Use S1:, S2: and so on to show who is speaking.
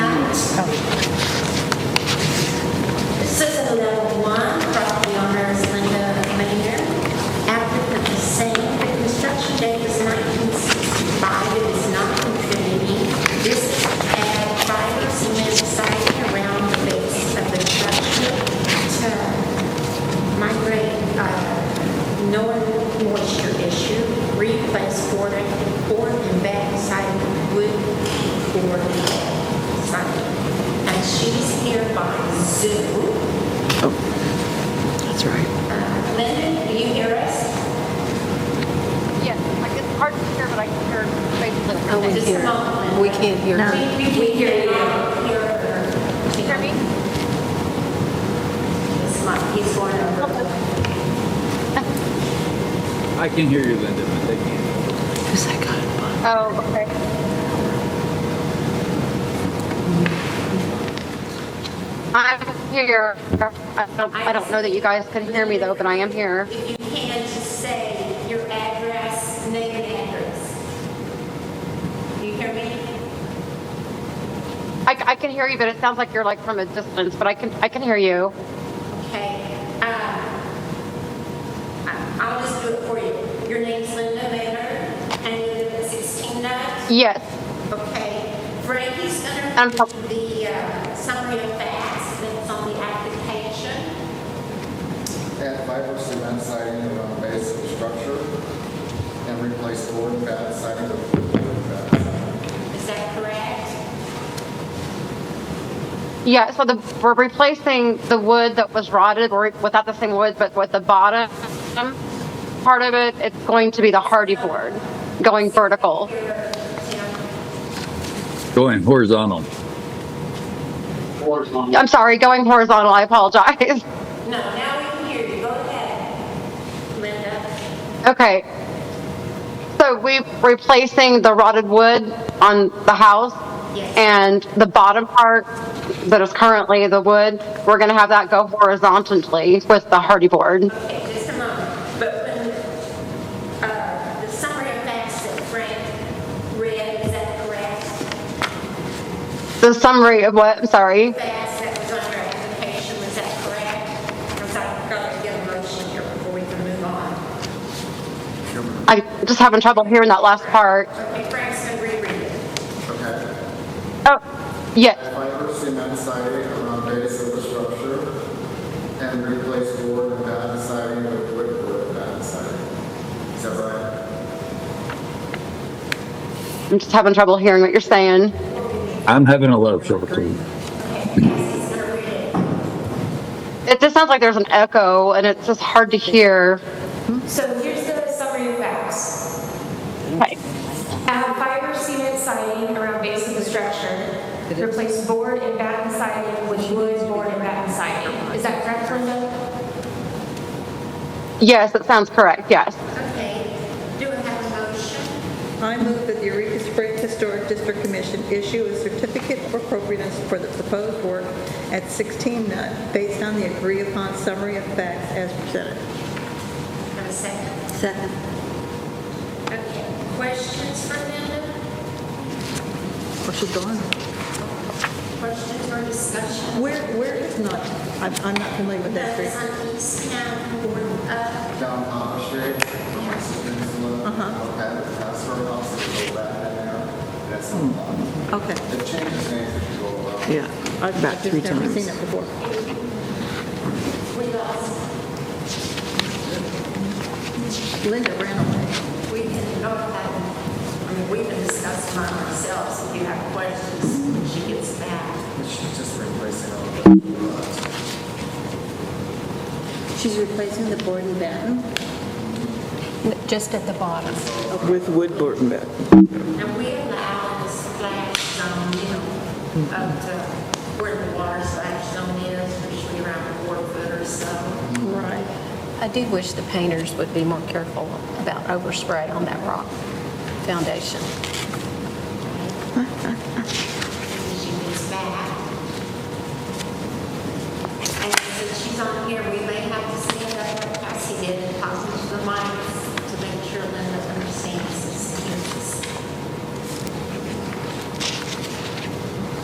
S1: uh, Zoo.
S2: Oh, That's right.
S1: Lyndon, do you hear us?
S3: Yes, I it's hard to hear, but I can hear basically
S2: Oh, we
S3: everything.
S1: Just a
S2: hear.
S1: moment.
S2: We can't hear.
S1: We we can hear you. Hear her.
S3: Can you hear me?
S1: He's not- He's going over.
S4: I can hear you, Linda, but they can't.
S2: Who's that guy?
S3: Oh, okay. I'm here. I don't, I don't know that you guys could hear me though, but I am here.
S1: If you can, just say your address, name and address. Do you hear me?
S3: I, I can hear you, but it sounds like you're like from a distance, but I can, I can hear you.
S1: Okay. uh, I- I'll just do it for you. Your name's Linda Manor and you live at 16 Knox?
S3: Yes.
S1: Okay, Frankie's gonna
S3: Um,
S1: read the uh, summary of facts that's on the application.
S5: add fiber cement siding around the base of the structure, and replace board and bat siding with board and bat.
S1: Is that correct?
S3: Yeah, so the, we're replacing the wood that was rotted, or without the same wood, but with the bottom part of it, it's going to be the hardy board, going vertical.
S4: Going horizontal.
S3: I'm sorry, going horizontal, I apologize.
S1: No, now we can hear you. Go ahead, Linda.
S3: Okay. So we're replacing the rotted wood on the house
S1: Yes.
S3: and the bottom part that is currently the wood, we're going to have that go horizontally with the hardy board.
S1: Okay, just a moment. But when, uh, the summary of facts that Frank read, is that correct?
S3: The summary of what, I'm sorry.
S1: Facts that was on your application, was that correct? Because I've got to get a motion here before we can move on.
S3: I just having trouble hearing that last part.
S1: Okay, Frank's gonna reread it.
S5: Okay.
S3: Oh, yes,
S5: Add fiber cement siding around the base of the structure, and replace board and bat siding with wood board and bat siding. Is that right?
S3: I'm just having trouble hearing what you're saying.
S4: I'm having a lot of trouble too.
S3: It just sounds like there's an echo and it's just hard to hear.
S6: So here's the summary of facts.
S3: Okay.
S6: Add fiber cement siding around base of the structure. Replace board and batten siding with wood, board, and batten siding. Is that correct, Linda?
S3: Yes, that sounds correct, yes.
S1: Okay, do we have a motion?
S7: I move that the Eureka Springs Historic District Commission issue a certificate of appropriateness for the proposed work at 16 Nut based on the agreed-upon summary of facts as presented.
S1: Have a second?
S2: Second.
S1: Okay, questions for Linda?
S7: Or Oh, she's gone.
S1: Questions or discussion?
S7: Where, where is Nut? I'm, I'm not familiar with that
S1: That's
S7: street.
S1: on East Town, Board of,
S5: Down Palm Street, from my sister's little, I'll have it, that's her house, it's all that, and uh, that's on the lot.
S7: Okay.
S5: It changes names if you go around.
S2: Yeah,
S7: I've
S2: about
S7: I've
S2: three
S7: just never seen it
S2: times.
S7: before.
S1: we lost,
S7: Linda ran away.
S1: we can go ahead. I mean, we can discuss among ourselves if you have questions when she gets back.
S5: It's just replacing all the.
S7: She's replacing the board and batten?
S2: Just at the bottom.
S8: With wood board and bat.
S1: Now, we allow the splash zone, you know, up to where the water splash zone is, usually around four foot or so.
S7: Right.
S2: I do wish the painters would be more careful about overspray on that rock foundation.